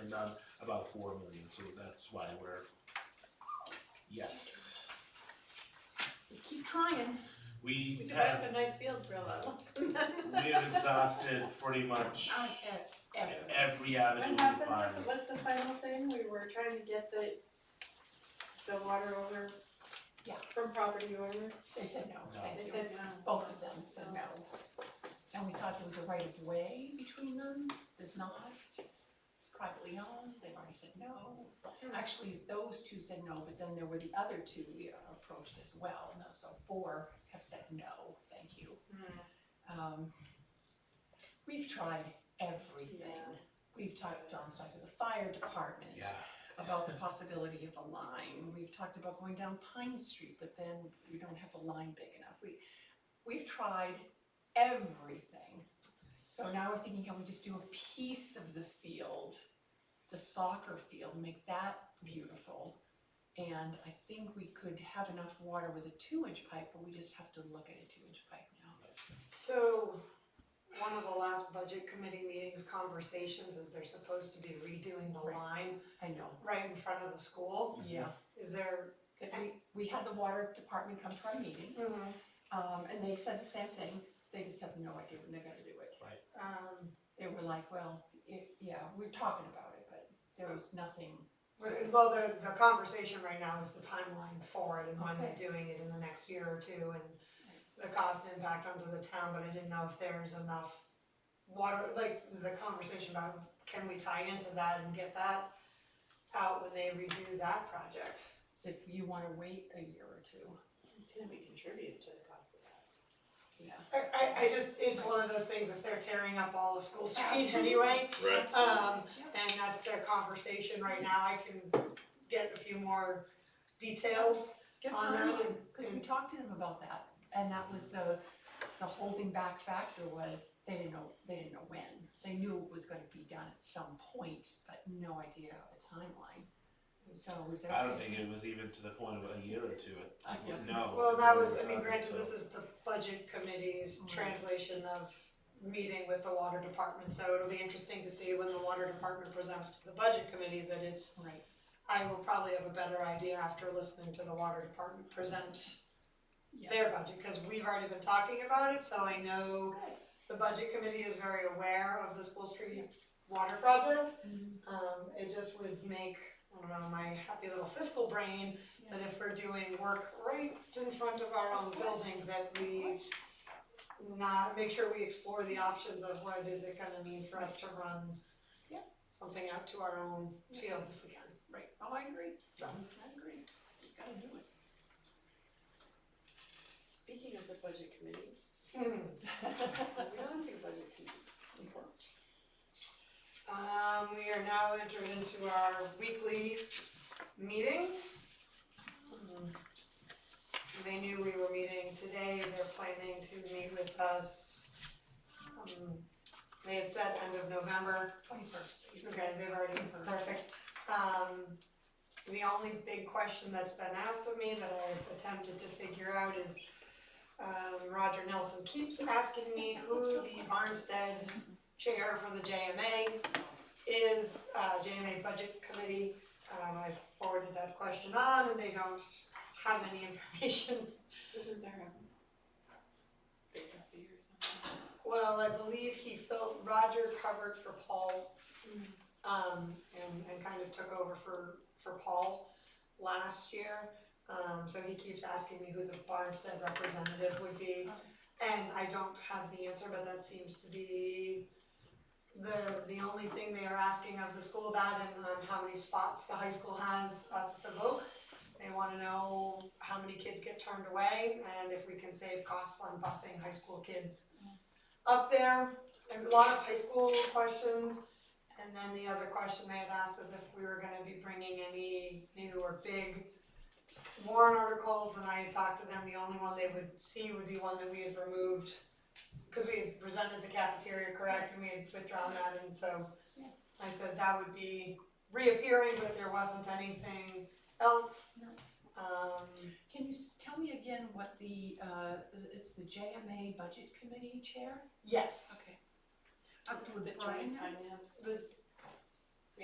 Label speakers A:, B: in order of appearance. A: and done about four million, so that's why we're, yes.
B: We keep trying. We
A: We
B: could buy
A: have,
B: some nice fields for a lot less than that.
A: we have exhausted pretty much
C: Uh,
B: On ev- everything.
A: every avenue we can
B: What happened,
A: find.
B: with the- what's the final thing, we were trying to get the, the water over
C: Yeah.
B: from property owners?
C: They said no,
A: No.
C: thank
B: They
C: you.
B: said "Hmm, no.
C: Both of them said no. And we thought there was a right of way between them, there's not. It's privately owned, they've already said no.
B: hmm,
C: Actually, those two said no, but then there were the other two we approached as well, no, so four have said no, thank you.
B: hmm."
C: Um, we've tried everything. We've talked, John's talked to the fire department
A: Yeah,
C: about the possibility of a line. We've talked about going down Pine Street, but then we don't have a line big enough. We, we've tried everything. So now we're thinking, can we just do a piece of the field, the soccer field, make that beautiful? And I think we could have enough water with a two-inch pipe, but we just have to look at a two-inch pipe now.
D: So, one of the last budget committee meetings conversations is they're supposed to be redoing the
C: Right.
D: line
C: I know,
D: right in front of the school.
A: Mm-hmm.
C: yeah.
D: Is there?
C: But we, we had the water department come to our meeting, um, and they said the same thing. They just have no idea when they're gonna do it.
D: Um,
C: they were like, well, it, yeah, we're talking about it, but there was nothing. specific.
D: well, the, the conversation right now is the timeline for it and when
C: Okay.
D: they're doing it in the next year or two and the cost impact onto the town, but I didn't know if there's enough water, like the conversation about can we tie into that and get that out when they redo that project?
C: So if you wanna wait a year or two,
B: Can we contribute to the cost of that?
C: yeah.
D: I, I, I just, it's one of those things, if they're tearing up all of School Street anyway,
E: Right.
D: Um,
C: Yeah.
D: and that's their conversation right now, I can get a few more details.
C: Get
D: on
C: time,
D: that.
C: and- cause we talked to them about that, and that was the, the holding back factor was, they didn't know, they didn't know when. They knew it was gonna be done at some point, but no idea of a timeline. So was there?
A: I don't think it was even to the point of a year or two,
C: Uh, yeah.
A: no.
D: Well, that was, I
A: we
D: mean,
A: were
D: granted,
A: talking,
D: this
A: so-
D: is the budget committee's
C: Mm.
D: translation of meeting with the water department, so it'll be interesting to see when the water department presents to the budget committee that it's,
C: Right,
D: I will probably have a better idea after listening to the water department present
C: yes.
D: their budget, cause we've already been talking about it, so I know
C: Good.
D: the budget committee is very aware of the School Street water project.
C: Mhm.
D: Um, it just would make, I don't know, my happy little fiscal brain, that if we're doing work right in front of our own building, that we not, make sure we explore the options of what is it gonna mean for us to run
C: Yep.
D: something out to our own fields if we can.
C: Right, oh, I agree, I agree, just gotta do it.
B: Speaking of the budget committee,
D: Hmm,
B: moving on to the budget committee report.
D: um, we are now entered into our weekly meetings. Um, They knew we were meeting today, they're planning to meet with us. um, They had said end of November,
C: Twenty-first.
D: You guys, they've already, perfect. Um, the only big question that's been asked of me that I've attempted to figure out is, um, Roger Nelson keeps asking me who the Barnstead chair for the JMA is, uh, JMA Budget Committee. Um, I forwarded that question on and they don't have any information.
B: Isn't there a vacancy or something?
D: Well, I believe he filled, Roger covered for Paul um, and, and kind of took over for, for Paul last year. Um, so he keeps asking me who the Barnstead representative would be, and I don't have the answer, but that seems to be the, the only thing they are asking of the school, that and, um, how many spots the high school has up at the Voc. They wanna know how many kids get turned away, and if we can save costs on busing high school kids up there. And a lot of high school questions, and then the other question they had asked was if we were gonna be bringing any new or big warrant articles, and I had talked to them, the only one they would see would be one that we had removed, cause we had presented the cafeteria correct, and we had withdrawn that, and so
C: Yeah.
D: I said that would be reappearing, but there wasn't anything else.
C: No.
D: Um,
C: Can you s- tell me again what the, uh, it's the JMA Budget Committee Chair?
D: yes,
C: Okay. Up to the Brian,
B: Finance.
D: the